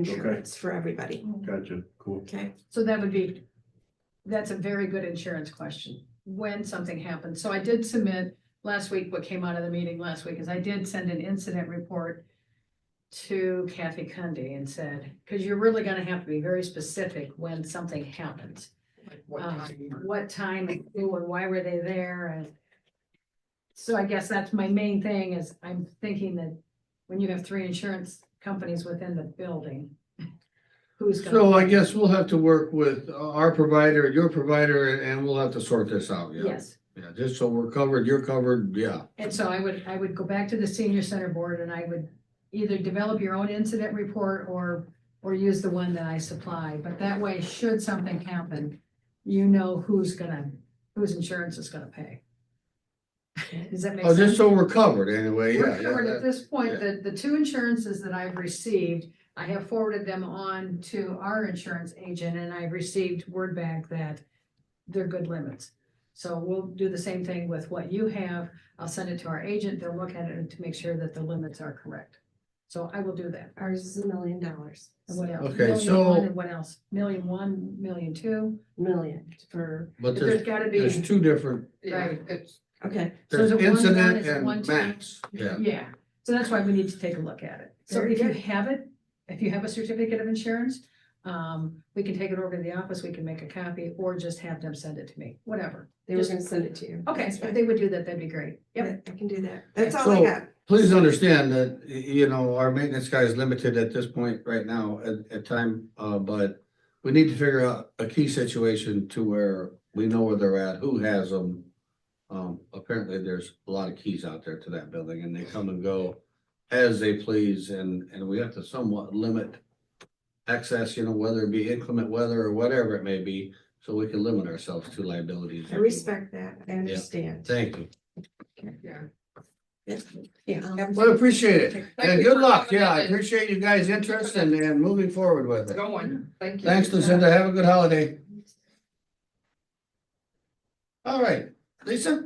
insurance for everybody, Gotcha, cool. okay? So that would be, that's a very good insurance question, when something happens. So I did submit last week, what came out of the meeting last week is I did send an incident report to Kathy Cundy and said, because you're really gonna have to be very specific when something happens. Um, What time, who and why were they there and so I guess that's my main thing is I'm thinking that when you have three insurance companies within the building, who's gonna? So I guess we'll have to work with our provider, your provider, and- and we'll have to sort this out, yeah. Yes. Yeah, just so we're covered, you're covered, yeah. And so I would, I would go back to the senior center board and I would either develop your own incident report or, or use the one that I supply. But that way, should something happen, you know who's gonna, whose insurance is gonna pay. Does that make Oh, just sense? so we're covered anyway, yeah. We're yeah, covered at that- this point, yeah. the, the two insurances that I've received, I have forwarded them on to our insurance agent and I received word back that they're good limits. So we'll do the same thing with what you have. I'll send it to our agent. They'll look at it to make sure that the limits are correct. So I will do that. Ours is a million dollars, And what else? Okay, Million so- one and What else? Million one, million two? million for, But There's there's, gotta there's be, two different, right. okay, So is there's it one gun, incident is it one and time? max, yeah. Yeah, so that's why we need to take a look at it. So Very if you good. have it, if you have a certificate of insurance, um, we can take it over to the office, we can make a copy, or just have them send it to me, whatever. they were gonna send it to you. Okay, if they would do that, that'd be great. Yep, I can do that, that's all I So- got, Please understand that, y- you know, our maintenance guy is limited at this point right now at, at time, uh, but we need to figure out a key situation to where we know where they're at, who has them. Um, apparently there's a lot of keys out there to that building and they come and go as they please and, and we have to somewhat limit access, you know, whether it be inclement weather or whatever it may be, so we can limit ourselves to liabilities. I respect that, I understand. Thank you. Yeah. Um, Well, appreciate it. Thank And you good for luck, coming yeah, I in and- appreciate you guys' interest and, and moving forward with it. Going, thank you. Thanks Lucinda, have a good holiday. All right, Lisa,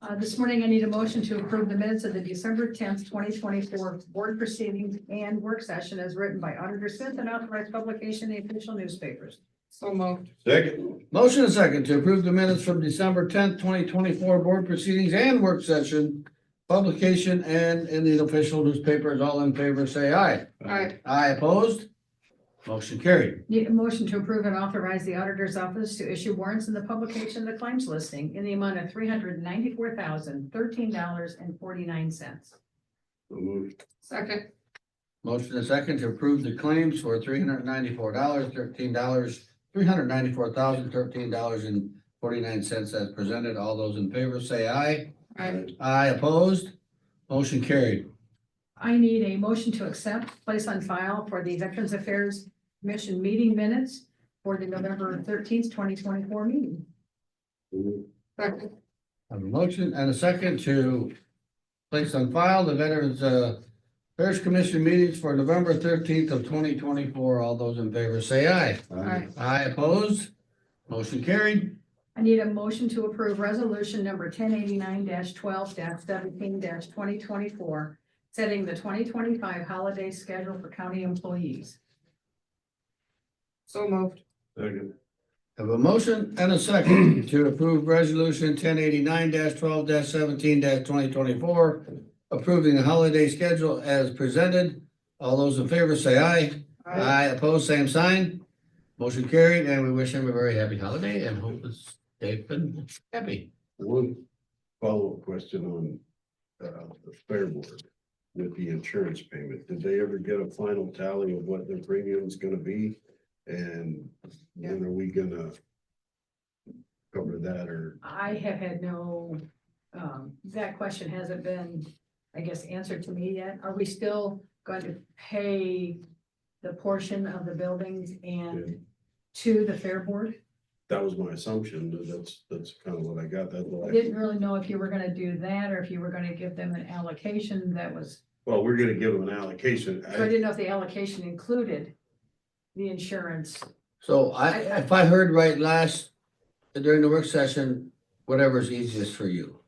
uh, this morning I need a motion to approve the minutes of the December tenth, twenty twenty-four board proceedings and work session as written by Auditor Smith and authorized publication in the official newspapers. So moved. Second. motion and second to approve the minutes from December tenth, twenty twenty-four board proceedings and work session. Publication and in the official newspapers, all in favor, say aye. Aye. Aye opposed? Motion carried. Need a motion to approve and authorize the auditor's office to issue warrants in the publication of the claims listing in the amount of three hundred ninety-four thousand, thirteen dollars and forty-nine cents. So moved. Second, Motion and second to approve the claims for three hundred ninety-four dollars, thirteen dollars, three hundred ninety-four thousand, thirteen dollars and forty-nine cents as presented. All those in favor say aye. I, Aye opposed? Motion carried. I need a motion to accept, place on file for the Veterans Affairs Commission meeting minutes for the November thirteenth, twenty twenty-four meeting. So moved. second, I have a motion and a second to place on file the Veterans uh, Affairs Commission meetings for November thirteenth of twenty twenty-four. All those in favor say aye. I, Aye opposed? Motion carried. I need a motion to approve resolution number ten eighty-nine twelve seventeen twenty twenty-four, setting the twenty twenty-five holiday schedule for county employees. so moved. Second. Have a motion and a second to approve resolution ten eighty-nine twelve seventeen twenty twenty-four. Approving the holiday schedule as presented. All those in favor say aye. I, Opposed, same sign. Motion carried, and we wish him a very happy holiday and hope it's safe and happy. One follow-up question on uh, the fair board with the insurance payment. Did they ever get a final tally of what their premium is gonna be? And when are we gonna cover that or? I have had no, um, that question hasn't been, I guess, answered to me yet. Are we still going to pay the portion of the buildings and to the fair board? That was my assumption. that That's, that's kind of what I got. That's I what I, Didn't really know if you were gonna do that or if you were gonna give them an allocation that was, well, we're gonna give them an allocation. so I I- didn't know if the allocation included the insurance. So I, if I heard right last, during the work session, whatever's easiest for you.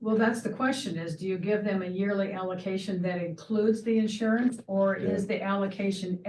Well, that's the question is, do you give them a yearly allocation that includes the insurance? Or is the allocation